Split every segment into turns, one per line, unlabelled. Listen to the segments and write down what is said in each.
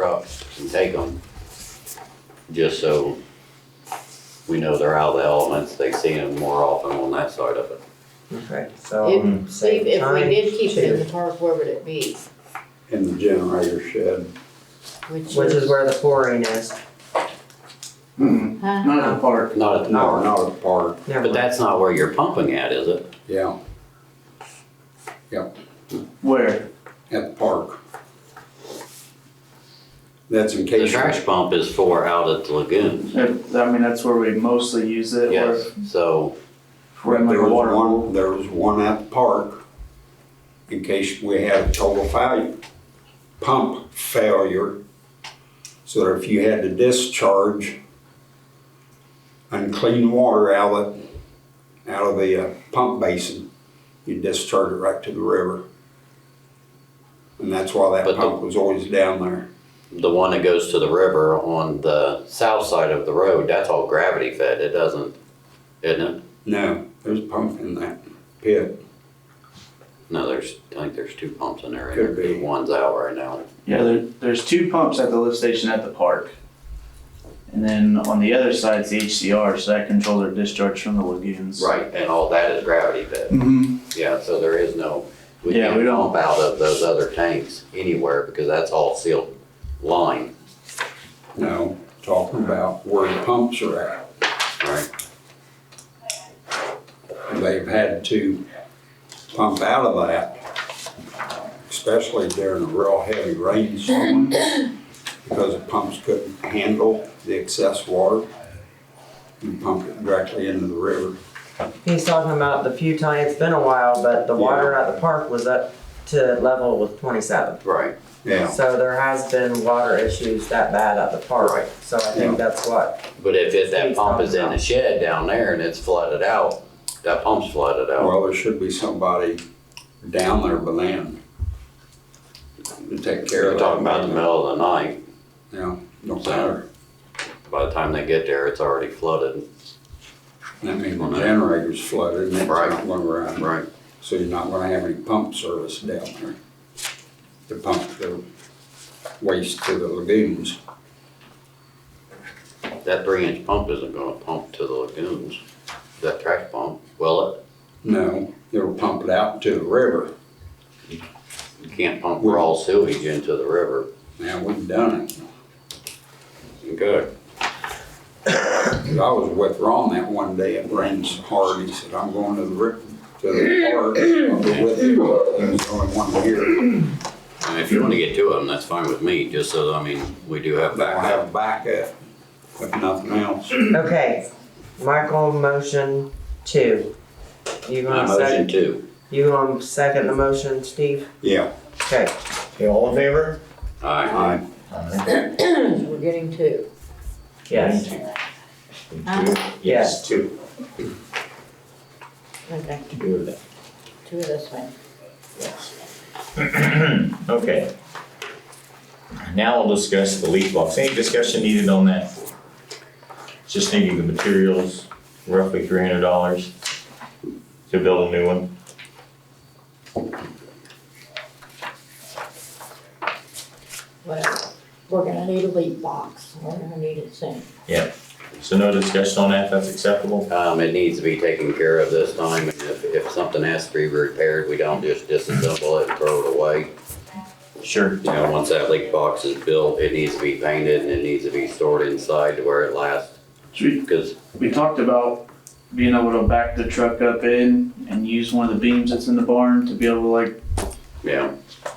trucks.
and take them, just so we know they're out of the elements, they see them more often on that side of it.
Okay,
Hmm.
so
If, see,
save
if we
time,
did keep it in the park, where would it be?
in the generator shed.
which is where the pouring is.
Not
Huh?
Not in the park.
Not at the park,
Not a park,
Never
but
mind.
that's not where you're pumping at, is it?
yeah,
Where?
at the park. That's in
The
case.
trash pump is for out at the lagoons,
If- I mean, that's where we mostly use it. or
yes, so,
if We're in like
There
a
was
water hole.
one, there was one at the park in case we had a total failure, pump failure. So that if you had to discharge unclean water outlet out of the uh, pump basin, you discharge it right to the river. And that's why
But
that
the-
pump was always down there.
the one that goes to the river on the south side of the road, that's all gravity fed, it doesn't, isn't it?
No, there's a pump in that pit.
No, there's, I think there's two pumps in there,
Could be.
and one's out right now.
Yeah, there, there's two pumps at the lift station at the park. And then on the other side is the HCR, so that controls our discharge from the lagoons.
Right, and all that is gravity fed.
Mm-hmm.
Yeah, so there is no, we
Yeah, we
can't
don't-
pump out of those other tanks anywhere because that's all sealed line,
No, talking about where the pumps are at.
right?
they've had to pump out of that, especially during a real heavy rainstorm, because the pumps couldn't handle the excess water. and pumped it directly into the river.
He's talking about the few times, it's been a while, but the water at the park was up to level with twenty-seven.
Right.
Yeah,
So there has been water issues that bad at the
Right.
park, so I think that's what,
But if, if that pump is in the shed down there and it's flooded out, that pump's flooded out.
well, there should be somebody down there by land to take care
You're
of that.
talking about the middle of the night,
Yeah, no matter,
by the time they get there, it's already flooded.
that means the generator's flooded and it's not
Right.
going around.
Right.
So you're not gonna have any pump service down there to pump the waste to the lagoons.
That three inch pump isn't gonna pump to the lagoons, that trash pump, will it?
No, it'll pump it out to the river.
You can't pump raw sewage into the river.
Now, we've done it.
Good.
'Cause I was with Ron that one day, it rains hard, he said, I'm going to the river, to the park, I'll be with you. There's only one here.
And if you wanna get to them, that's fine with me, just so, I mean, we do have
I'll
backup.
have backup, if nothing else.
okay. Michael, motion two. You
I
gonna
motion
second,
two.
you gonna second the motion, Steve?
Yeah.
Okay,
Okay, all in favor?
Aye.
Aye.
We're getting two.
yes, Yes.
Two.
Okay,
Two of them,
two of this one.
yes. Okay. Now we'll discuss the leak box. Any discussion needed on that? Just needing the materials, roughly three hundred dollars to build a new one.
Well, we're gonna need a leak box. We're gonna need it soon.
So no discussion on that, that's acceptable?
Um, it needs to be taken care of this time, and if, if something has to be repaired, we don't just disassemble it and throw it away.
Sure.
You know, once that leak box is built, it needs to be painted and it needs to be stored inside to where it lasts,
We,
because
we talked about being able to back the truck up in and use one of the beams that's in the barn to be able to like,
Yeah.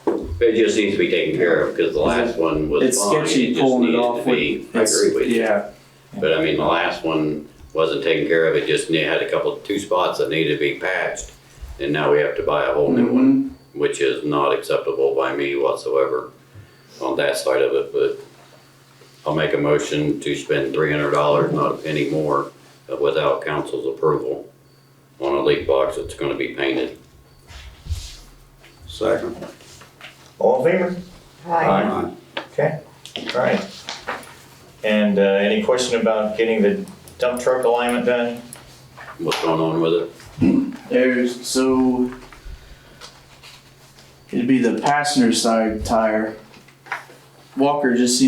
It just needs to be taken care of, because the last one was fine.
it's sketchy
just
pulling it
needed to
off
be-
with.
I agree with you.
Yeah,
But I mean, the last one wasn't taken care of, it just ne- had a couple, two spots that needed to be patched. And now we have to buy a whole new one,
Mhm.
which is not acceptable by me whatsoever on that side of it, but I'll make a motion to spend three hundred dollars, not a penny more, uh, without council's approval on a leak box that's gonna be painted.
Second.
All in favor?
Hi.
Aye.
Okay, all right. And, uh, any question about getting the dump truck alignment done?
What's going on with it?
There's, so it'd be the passenger side tire Walker just seen